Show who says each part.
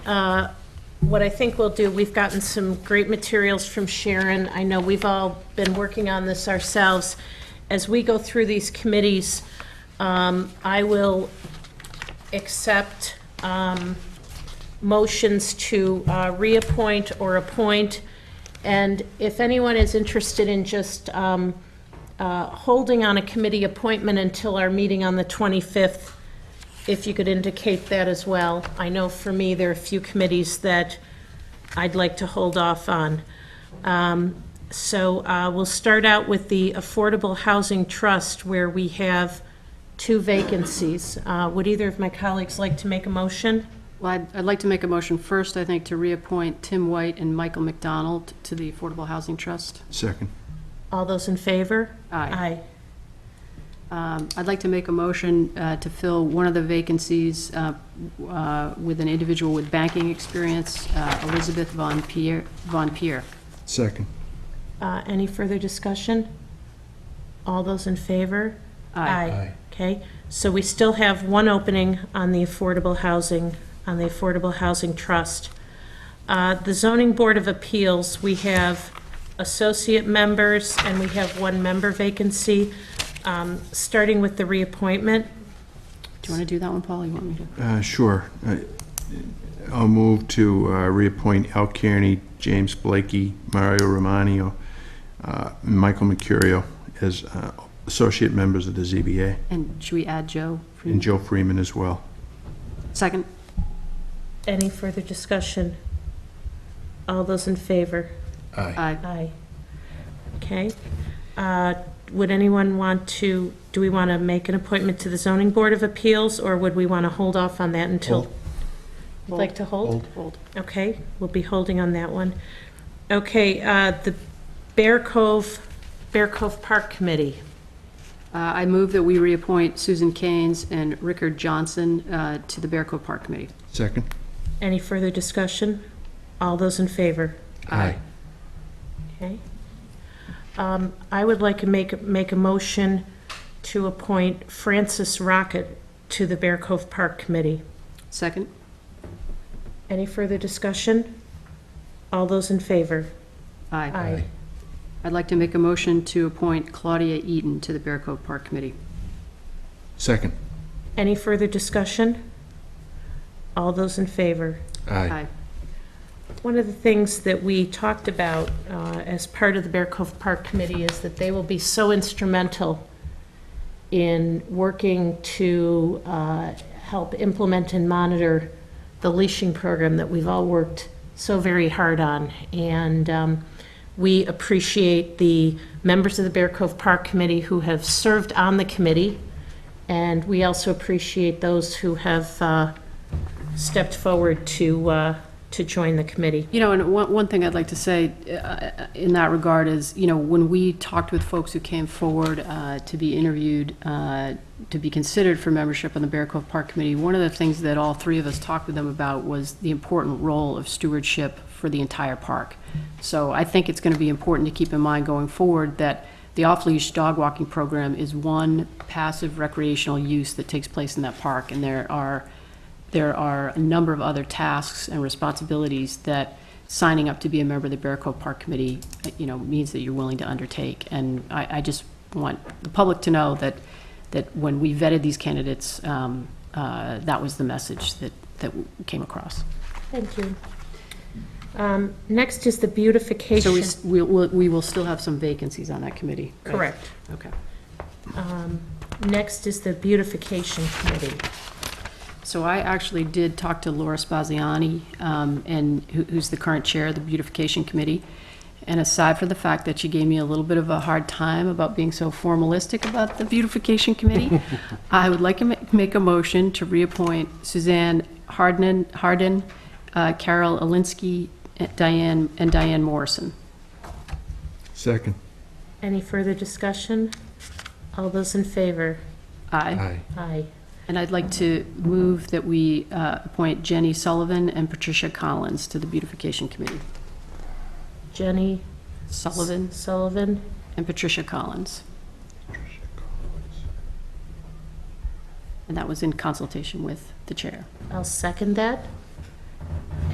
Speaker 1: Uh, What I think we'll do, we've gotten some great materials from Sharon. I know we've all been working on this ourselves. As we go through these committees, um, I will accept um, motions to uh, reappoint or appoint. And if anyone is interested in just um, uh, holding on a committee appointment until our meeting on the 25th, if you could indicate that as well. I know for me, there are a few committees that I'd like to hold off on. Um, So uh, we'll start out with the Affordable Housing Trust, where we have two vacancies. Uh, Would either of my colleagues like to make a motion?
Speaker 2: Well, I'd, I'd like to make a motion first, I think, to reappoint Tim White and Michael McDonald to the Affordable Housing Trust.
Speaker 3: Second.
Speaker 1: All those in favor?
Speaker 2: Aye.
Speaker 1: Aye.
Speaker 2: Um, I'd like to make a motion uh, to fill one of the vacancies uh, uh, with an individual with banking experience, uh, Elizabeth Von Pierre, Von Pierre.
Speaker 3: Second.
Speaker 1: Uh, Any further discussion? All those in favor?
Speaker 2: Aye.
Speaker 3: Aye.
Speaker 1: Okay, so we still have one opening on the Affordable Housing, on the Affordable Housing Trust. Uh, The Zoning Board of Appeals, we have associate members, and we have one member vacancy, Um, starting with the reappointment.
Speaker 2: Do you want to do that one, Paul? You want me to?
Speaker 3: Uh, Sure. I- I'll move to uh, reappoint Al Kearney, James Blakey, Mario Romano, uh, Michael Mercurio as uh, associate members of the ZBA,
Speaker 2: And should we add Joe? for-
Speaker 3: and Joe Freeman as well.
Speaker 2: Second?
Speaker 1: Any further discussion? All those in favor?
Speaker 2: Aye.
Speaker 1: Aye. Okay. Uh, Would anyone want to, do we want to make an appointment to the Zoning Board of Appeals, or would we want to hold off on that until? You'd like to hold?
Speaker 2: Hold.
Speaker 1: Okay, we'll be holding on that one. Okay, uh, the Bear Cove, Bear Cove Park Committee.
Speaker 2: Uh, I move that we reappoint Susan Keynes and Rickard Johnson uh, to the Bear Cove Park Committee.
Speaker 3: Second.
Speaker 1: Any further discussion? All those in favor? Okay. Um, I would like to make, make a motion to appoint Francis Rocket to the Bear Cove Park Committee.
Speaker 2: Second?
Speaker 1: Any further discussion? All those in favor?
Speaker 2: Aye. I'd like to make a motion to appoint Claudia Eaton to the Bear Cove Park Committee.
Speaker 3: Second.
Speaker 1: Any further discussion? All those in favor?
Speaker 2: Aye.
Speaker 1: One of the things that we talked about uh, as part of the Bear Cove Park Committee is that they will be so instrumental in working to uh, help implement and monitor the leashing program that we've all worked so very hard on. And um, we appreciate the members of the Bear Cove Park Committee who have served on the committee, and we also appreciate those who have uh, stepped forward to, uh, to join the committee.
Speaker 2: You know, and one, one thing I'd like to say uh, in that regard is, you know, when we talked with folks who came forward uh, to be interviewed, uh, to be considered for membership on the Bear Cove Park Committee, one of the things that all three of us talked with them about was the important role of stewardship for the entire park. So I think it's going to be important to keep in mind going forward that the off-leash dog walking program is one passive recreational use that takes place in that park, and there are there are a number of other tasks and responsibilities that signing up to be a member of the Bear Cove Park Committee, you know, means that you're willing to undertake. And I, I just want the public to know that, that when we vetted these candidates, um, uh, that was the message that, that came across.
Speaker 1: Thank you. Um, Next is the beautification.
Speaker 2: So we, s- we will, we will still have some vacancies on that committee. right?
Speaker 1: Correct.
Speaker 2: Okay.
Speaker 1: Next is the beautification committee.
Speaker 2: So I actually did talk to Laura Spaziani, um, and who- who's the current chair of the Beautification Committee. And aside from the fact that she gave me a little bit of a hard time about being so formalistic about the Beautification Committee, I would like to ma- make a motion to reappoint Suzanne Hardin, Hardin, uh, Carol Alinsky, Diane, and Diane Morrison.
Speaker 3: Second.
Speaker 1: Any further discussion? All those in favor?
Speaker 2: Aye.
Speaker 1: Aye.
Speaker 2: And I'd like to move that we uh, appoint Jenny Sullivan and Patricia Collins to the Beautification Committee.
Speaker 1: Jenny
Speaker 2: Sullivan
Speaker 1: Sullivan.
Speaker 2: and Patricia Collins. And that was in consultation with the chair.
Speaker 1: I'll second that.